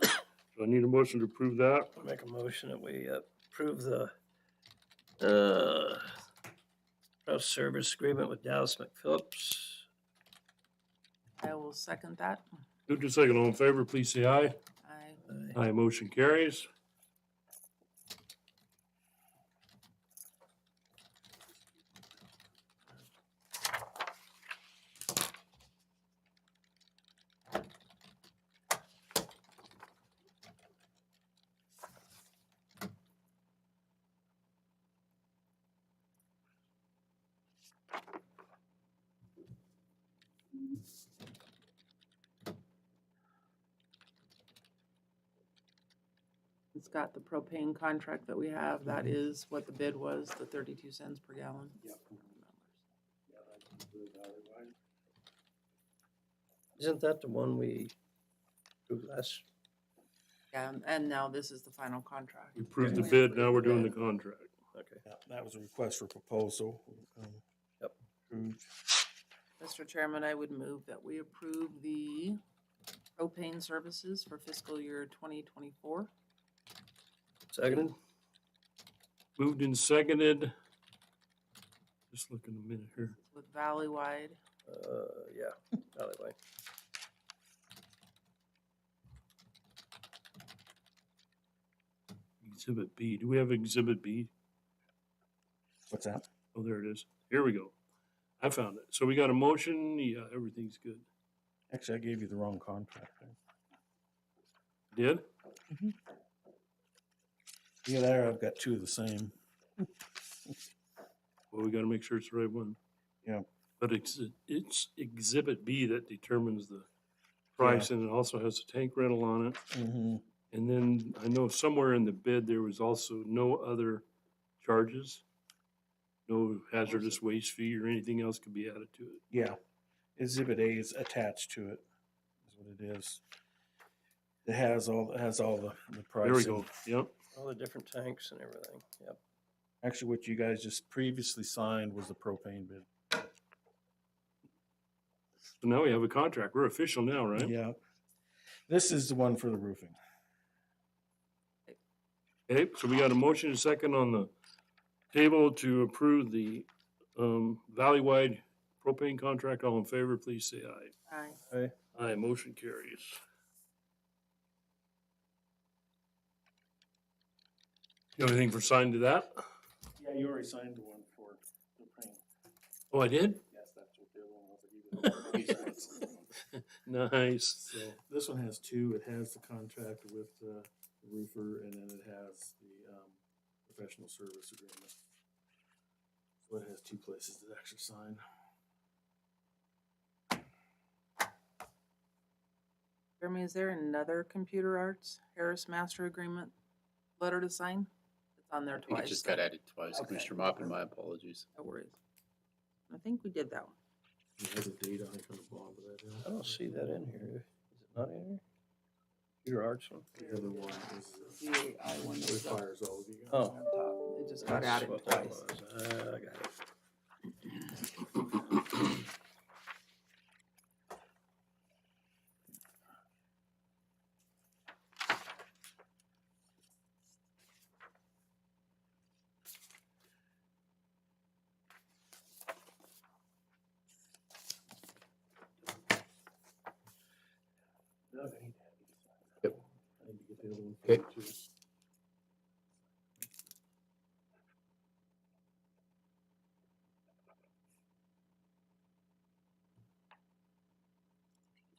I need a motion to approve that. Make a motion that we uh, approve the, uh, pro service agreement with Dallas McPhillips. I will second that. Moved and second, all in favor, please say aye. I, Aye. Aye, motion carries. it's got the propane contract that we have. That is what the bid was, the thirty-two cents per gallon. Isn't that the one we approved last? Yeah, and- and now this is the final contract. We approved the bid, now we're doing the contract. Okay. Yeah, That was a request for proposal. um, Yep. approved. Mr. Chairman, I would move that we approve the propane services for fiscal year twenty twenty-four. Seconded? Moved and seconded. Just looking a minute here. with Valleywide. Uh, yeah, alleyway. Exhibit B, do we have exhibit B? What's that? Oh, there it is. Here we go. I found it. So we got a motion, yeah, everything's good. Actually, I gave you the wrong contract. there. Did? Yeah, there, I've got two of the same. Well, we gotta make sure it's the right one. Yeah. But it's, it's exhibit B that determines the price and it also has a tank rental on it. Mhm. And then I know somewhere in the bid, there was also no other charges. No hazardous waste fee or anything else could be added to it. Yeah, exhibit A is attached to it, is what it is. It has all, it has all the, the pricing. There we go. Yep. All the different tanks and everything, yep. Actually, what you guys just previously signed was the propane bid. So now we have a contract. We're official now, right? Yeah. This is the one for the roofing. Okay, so we got a motion and a second on the table to approve the, um, Valleywide propane contract. All in favor, please say aye. Aye. Aye, motion carries. You have anything for sign to that? Yeah, you already signed the one for the propane. Oh, I did? Yes, that's what the other one was. Nice. So this one has two. It has the contract with the roofer and then it has the um, professional service agreement. So it has two places to actually sign. Jeremy, is there another Computer Arts Harris Master Agreement letter to sign? It's on there I think twice. it just got added twice. Okay. Commissioner Mopkin, my apologies. No worries. I think we did that one. It has a date on it on the bottom of that. I Oh, don't see that in here. Is it not in here? Computer arts one? The other one is uh, The I one was up requires all of you guys. Oh. on top. It just got That's added what that twice. was. Uh, I got it. Yep. I need to get the other one. Okay.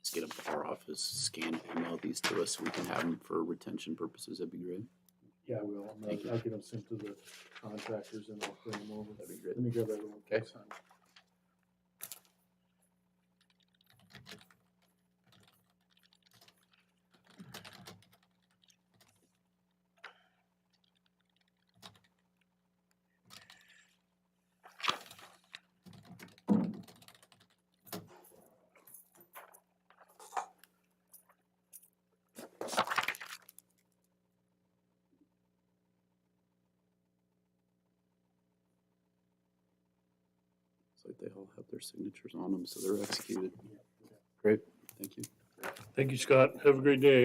Just get them to our office, scan, email these to us so we can have them for retention purposes. That'd be great. Yeah, I will. I'll Thank you. I'll get them sent to the contractors and I'll bring them over. That'd be great. Let me grab that other one. Okay. Sign. It's like they all have their signatures on them, so they're executed. Great, thank you. Thank you, Scott. Have a great day.